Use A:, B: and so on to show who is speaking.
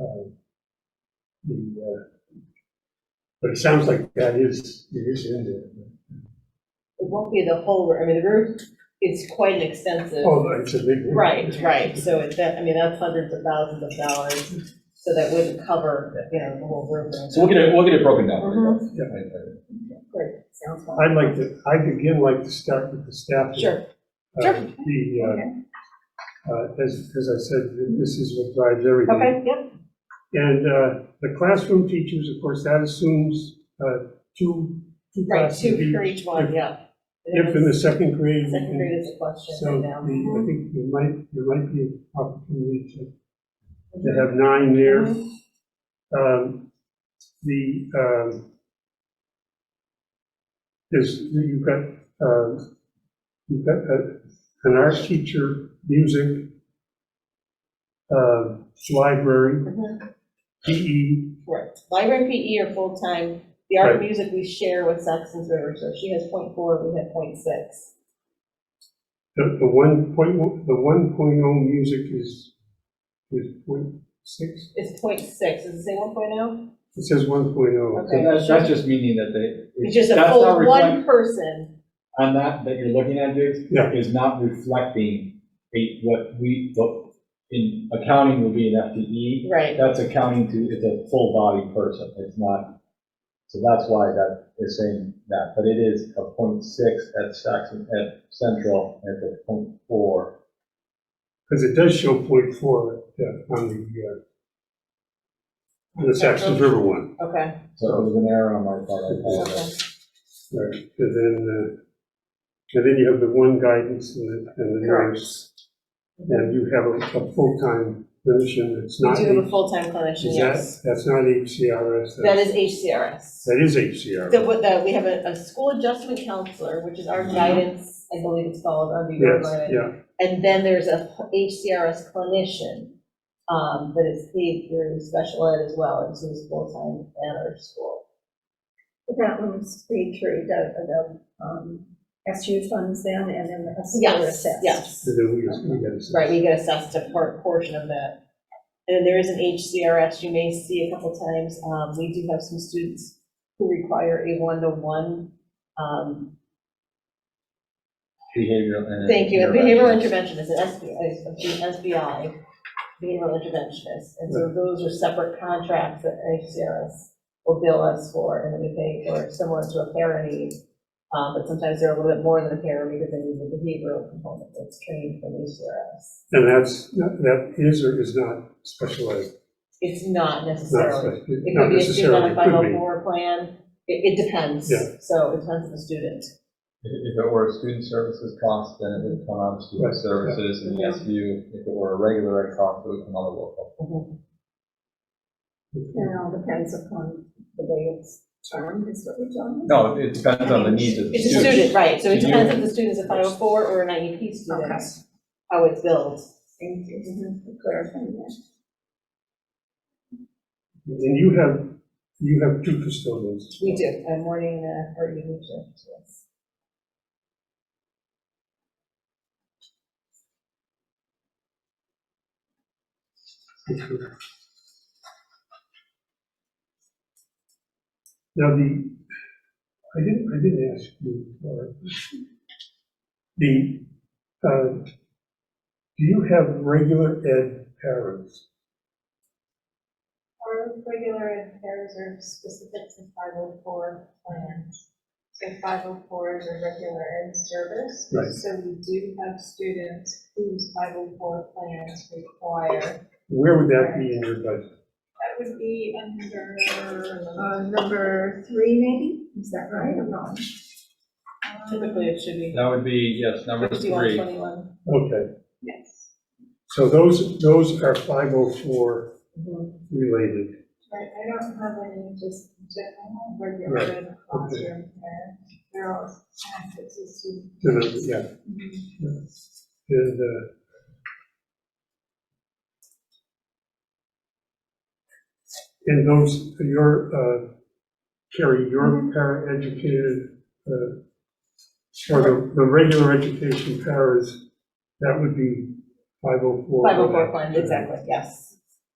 A: uh, the, uh, but it sounds like that is, it is in there.
B: It won't be the whole, room. I mean, the roof is quite an extensive.
A: Oh, it's a big.
B: Right, right, so it's that, I mean, that's hundreds of thousands of dollars, so that wouldn't cover, you know, the whole room.
C: So we'll get it, we'll get it broken down.
B: Mhm.
C: Yeah, I-
B: Great, sounds fun.
A: I'd like to, I'd again like to start with the staff.
B: Sure,
A: Uh,
B: sure.
A: The, uh, uh, as, as I said, this is what drives everything.
B: okay, yep,
A: And uh, the classroom teachers, of course, that assumes uh, two, two
B: right,
A: classes.
B: two
A: each.
B: for each one, yeah.
A: Uh, If in the second grade. we
B: Second
A: can-
B: grade is a question
A: So
B: right
A: the-
B: now.
A: I think there might, there might be an opportunity to, to have nine there. Um, The, um, there's, you've got, uh, you've got uh, an art teacher, music, uh, library, E,
B: Mhm.
A: PE,
B: Correct, library and PE E are full-time, the art and
A: Right.
B: music we share with Saxon's River, so she has point four, we have point six.
A: The, the one point, o- the one point oh music is, is point six?
B: It's point six, does it say one oh?
A: It says one point oh.
C: So
B: Okay.
C: that's, that's just meaning that they.
B: It's just a
C: that's not
B: full
C: reflect-
B: one person,
C: On that, that you're looking at, Diggs,
A: Yeah.
C: is not reflecting a- what we, what in accounting would be an FTE.
B: right,
C: That's accounting to, it's a full body person, it's not, so that's why that is saying that. But it is a point six at Saxon, at Central, and it's a point four.
A: Because it does show point four uh, on the, uh, on the Saxon River one.
B: okay.
C: So it was an error on my part, I
B: Okay.
C: apologize.
A: Right, and then, uh, and then you have the one guidance and the, and the
B: Correct.
A: nurse. And you have a, a full-time position that's
B: We
A: not.
B: do have a
A: H-
B: full-time clinician,
A: is
B: yes.
A: that- That's not HCRS.
B: That
A: that's-
B: is HCRS.
A: That is HCRS.
B: So what the, we have a, a school adjustment counselor, which is our guidance, I believe it's called, under your
A: Mm-hmm. Yes,
B: line.
A: yeah.
B: And then there's a HCRS clinician, um, that is paid through special ed as well, and so it's full-time at our school.
D: That one's paid through the, the, um, SU funds then, and then the SU
B: Yes,
D: assessed.
B: yes.
A: So then we, we got to.
B: Right, we get assessed a part, portion of that. And then there is an HCRS you may see a couple times. Um, we do have some students who require a one-to-one, um,
C: Behavioral and.
B: Thank you, a
C: intervention.
B: behavioral interventionist, an SBI, a B- SBI, behavioral interventionist. And so those are separate contracts that HCRS will bill us for, and then we pay for, similar to a para need. Uh, But sometimes they're a little bit more than a para because they need the behavioral component that's trained from HCRS.
A: And that's, that is or is not specialized.
B: It's not
A: Not
B: necessarily,
A: spe-
B: it
A: not
B: could be a student on
A: necessarily,
B: a
A: could be.
B: 504 plan, it, it depends.
A: Yeah.
B: So it depends on the student.
C: If if it were a student services cost, then it would come out of
A: Right,
C: student
A: yeah.
C: services and the SU. If it were a regular ed cost, it would come out of local.
B: Mm-hmm.
D: And it all depends upon the way it's termed, is what we're talking
C: No,
D: about.
C: it it depends on the needs of the
B: It's a
C: student.
B: student, right, so it
C: So you-
B: depends if the student's a 504 or an IEP student,
D: Okay. Mm-hmm.
B: how it's billed.
D: Thank you for clarifying that.
A: And you have, you have two custodians.
B: We do, a morning uh, or evening shift, yes.
A: Now, the, I didn't, I didn't ask you, or, the, uh, do you have regular ed parents?
E: Our regular and pairs are specific to five oh four plans. So five oh fours are regular ed service.
A: Right.
E: So we do have students whose five oh four plans require,
A: Where would that be in your budget?
E: that would be under,
D: Uh,
E: uh,
D: number three maybe, is that right or wrong?
B: Typically, it should be
C: That would be, yes, number
B: fifty-one,
C: three.
B: twenty-one.
A: Okay,
E: yes.
A: so those, those are 504 related.
E: Right, I don't have any just general regular
A: Right,
E: ed classroom pair. They're all access to students.
A: To the- yeah. Yeah. And, uh, and those, your, uh, Carrie, your paraeducated, uh, or the, the regular education paras, that would be five oh four.
B: Five oh four plan, exactly, yes.